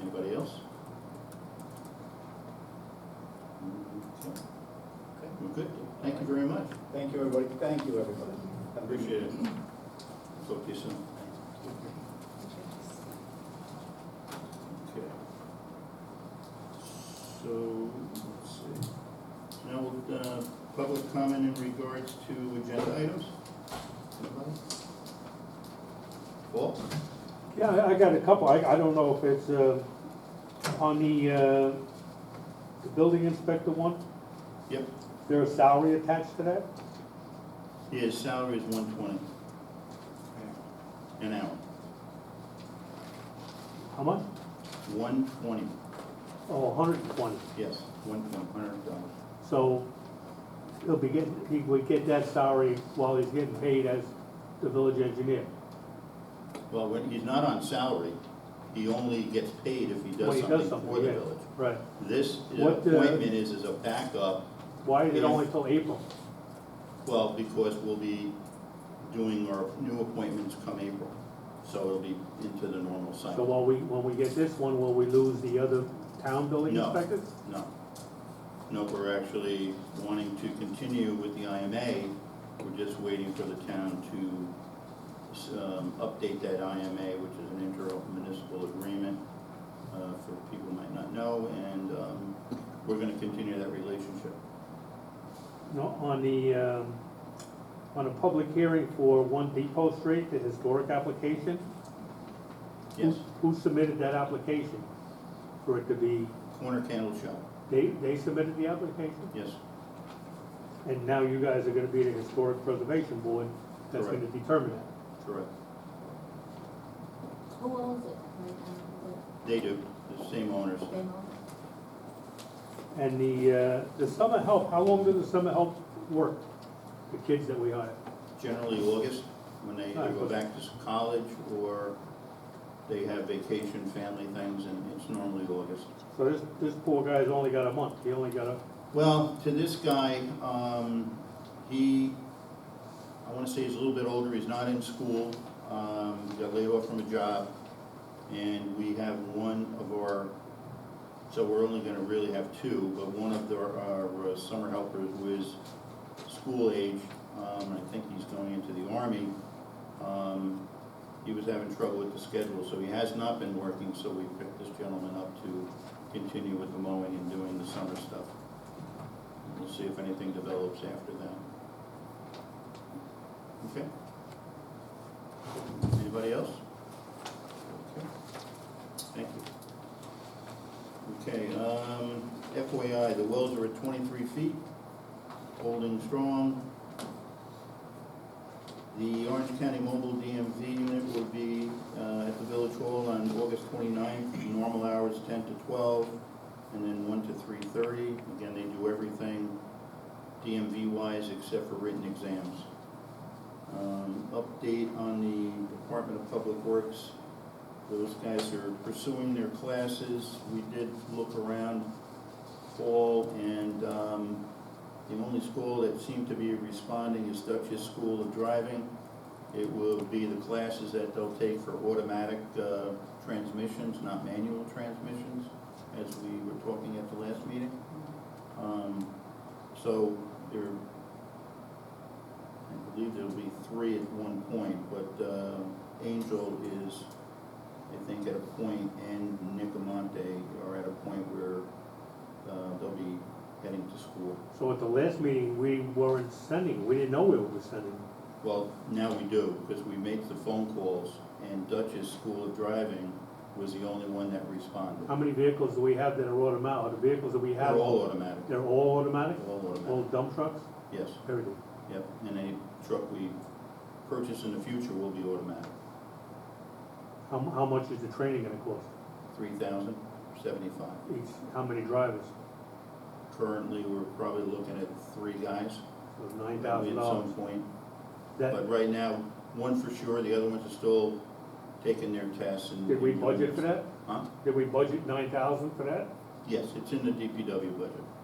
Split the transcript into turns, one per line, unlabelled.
Anybody else? Mm-hmm. Okay, Okay, well, good, thank you very much,
Thank you, everybody. Thank you, everybody. Have a good
appreciate it. Talk to you soon. Okay. So, let's see. Now, we'll, uh, public comment in regards to agenda items? Anybody? Paul?
Yeah, I- I got a couple, I, I don't know if it's, uh, on the, uh, the building inspector one,
Yep,
is there a salary attached to that?
his salary is one twenty an hour,
How much?
one twenty,
Oh, hundred and twenty,
yes, one twenty, hundred dollars.
so he'll be getting, he would get that salary while he's getting paid as the village engineer.
Well, when, he's not on salary, he only gets paid if he
Well,
does
he
something
does
for the
yeah,
village.
Right,
This
What, uh,
appointment is as a backup,
why is it
Yeah.
only till April?
well, because we'll be doing our new appointments come April. So it'll be into the normal
So
cycle.
while we, when we get this one, will we lose the other town building
No.
inspectors?
No. No, we're actually wanting to continue with the IMA. We're just waiting for the town to, um, update that IMA, which is an intermunicipal agreement, uh, for people who might not know, and, um, we're gonna continue that relationship.
No, on the, um, on a public hearing for One Depot Street, the historic application?
Yes,
Who who submitted that application for it to be,
corner candle shop,
they, they submitted the application?
yes,
And now you guys are gonna be the Historic Preservation Board that's gonna
Correct.
determine it.
correct.
Who owns it right now?
They do, the same owners.
Is it them?
And the, uh, the summer help, how long does the summer help work? The kids that we hire?
Generally August, when they either go
Alright, but-
back to s- college or they have vacation, family things, and it's normally August.
So this, this poor guy's only got a month, he only got a,
Well, to this guy, um, he, I wanna say he's a little bit older, he's not in school, um, got laid off from a job. And we have one of our, so we're only gonna really have two, but one of the- our uh, summer helpers who is school age, um, I think he's going into the army. Um, he was having trouble with the schedule, so he has not been working, so we picked this gentleman up to continue with the mowing and doing the summer stuff. We'll see if anything develops after that. Okay? Anybody else? Okay. Thank you. Okay, um, FYI, the wells are at twenty-three feet, holding strong. The Orange County Mobile DMV unit will be, uh, at the Village Hall on August 29th. normal hours ten to twelve and then one to three thirty. Again, they do everything DMV wise except for written exams. Um, update on the Department of Public Works. Those guys are pursuing their classes. We did look around fall and, um, the only school that seemed to be responding is Dutchess School of Driving. It will be the classes that they'll take for automatic, uh, transmissions, not manual transmissions as we were talking at the last meeting. Um, So there, I believe there'll be three at one point, but uh, Angel is, I think, at a point, and Nicomonte are at a point where uh, they'll be heading to school.
so at the last meeting, we weren't sending, we didn't know we were sending.
Well, now we do, because we make the phone calls, and Dutchess School of Driving was the only one that responded.
How many vehicles do we have that are automatic, the vehicles that we have?
They're all automatic,
They're all automatic,
all
all
automatic,
dump trucks,
yes.
everything?
Yep, and any truck we purchase in the future will be automatic,
How, mu- how much is the training gonna cost?
three thousand seventy-five.
Each, how many drivers?
Currently, we're probably looking at three guys.
So nine
probably
thousand
At
dollars.
some point,
That,
but right now, one for sure, the other ones are still taking their tests and.
did we budget for that?
Huh?
Did we budget nine thousand for that?
Yes, it's in the DPW budget.